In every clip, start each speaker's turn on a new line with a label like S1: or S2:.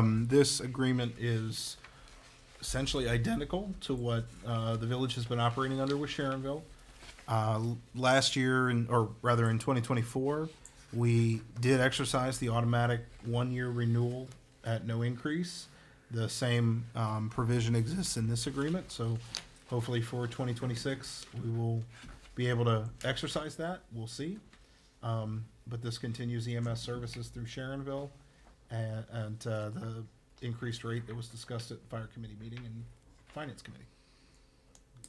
S1: Um, This agreement is essentially identical to what uh, the village has been operating under with Sharonville. Uh, l- Last year, in- or rather in 2024, we did exercise the automatic one-year renewal at no increase. The same um, provision exists in this agreement, so hopefully for 2026, we will be able to exercise that. We'll see. Um, But this continues EMS services through Sharonville and, and uh, the increased rate that was discussed at fire committee meeting and finance committee.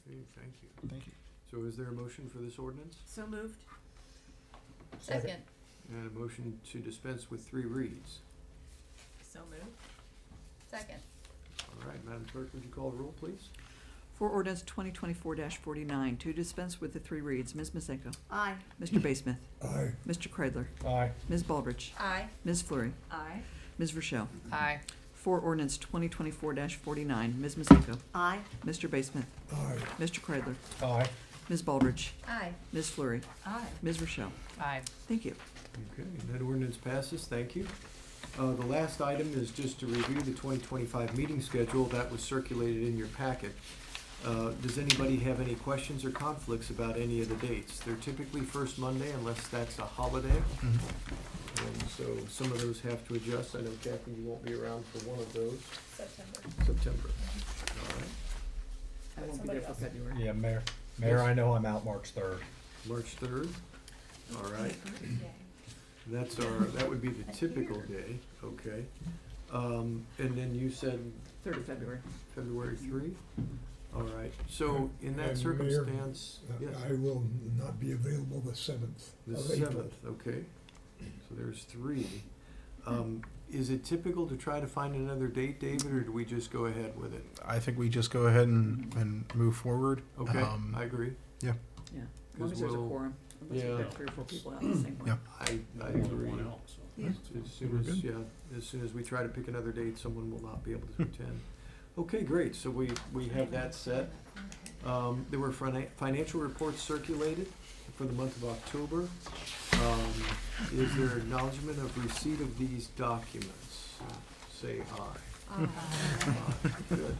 S2: Okay, thank you.
S1: Thank you.
S2: So is there a motion for this ordinance?
S3: So moved.
S4: Second.
S2: And a motion to dispense with three reads?
S3: So moved.
S4: Second.
S2: All right, Madam Clerk, would you call the roll, please?
S5: For ordinance twenty twenty-four forty-nine, to dispense with the three reads, Ms. Masenko.
S3: Aye.
S5: Mr. Basemuth. Aye. Mr. Kreidler.
S1: Aye.
S5: Ms. Baldridge.
S4: Aye.
S5: Ms. Fleury.
S3: Aye.
S5: Ms. Rochelle.
S4: Aye.
S5: For ordinance twenty twenty-four forty-nine, Ms. Masenko.
S3: Aye.
S5: Mr. Basemuth.
S2: Aye.
S5: Mr. Kreidler.
S1: Aye.
S5: Ms. Baldridge.
S4: Aye.
S5: Ms. Fleury.
S3: Aye.
S5: Ms. Rochelle.
S4: Aye.
S5: Thank you.
S2: Okay, that ordinance passes, thank you. Uh, the last item is just to review the twenty twenty-five meeting schedule that was circulated in your packet. Uh, does anybody have any questions or conflicts about any of the dates? They're typically first Monday unless that's a holiday.
S1: Mm-hmm.
S2: And so some of those have to adjust. I know Kathy, you won't be around for one of those,
S4: September.
S2: September. All right.
S5: I
S4: won't be there for Somebody
S5: February.
S6: Yeah, Mayor, Mayor, I know I'm out March third.
S2: March third, all right. That's our, that would be the typical day, okay. Um, and then you said
S5: Third of February.
S2: February three? All right, so in that
S7: And Mayor,
S2: circumstance, yes,
S7: I will not be available the seventh
S2: the
S7: of April.
S2: seventh, okay. So there's three. Um, is it typical to try to find another date, David, or do we just go ahead with it?
S1: I think we just go ahead and, and move forward.
S2: Okay,
S1: Um,
S2: I agree.
S5: Yeah. As long as there's a
S2: we'll-
S5: quorum, unless you
S2: yeah.
S5: get three or four people out at the same point.
S1: Yeah.
S2: I, I agree.
S5: Yeah.
S2: As soon
S1: We're
S2: as,
S1: good.
S2: yeah, as soon as we try to pick another date, someone will not be able to attend. Okay, great, so we, we have that set. Um, there were fina- financial reports circulated for the month of October. Um, is there acknowledgement of receipt of these documents? Say aye. Aye, Good.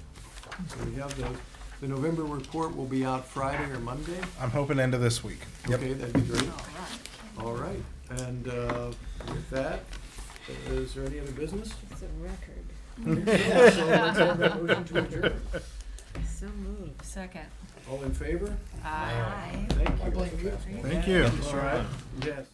S2: So we have those. The November report will be out Friday or Monday.
S1: I'm hoping end of this week.
S2: Okay, that'd be great.
S3: All right.
S2: All right, and uh, with that, is there any other business?
S3: It's a record.
S2: Yeah, so let's have that motion to adjourn.
S3: So moved.
S4: Second.
S2: All in favor?
S4: Aye.
S2: Thank you.
S1: Thank you.
S2: All right, yes.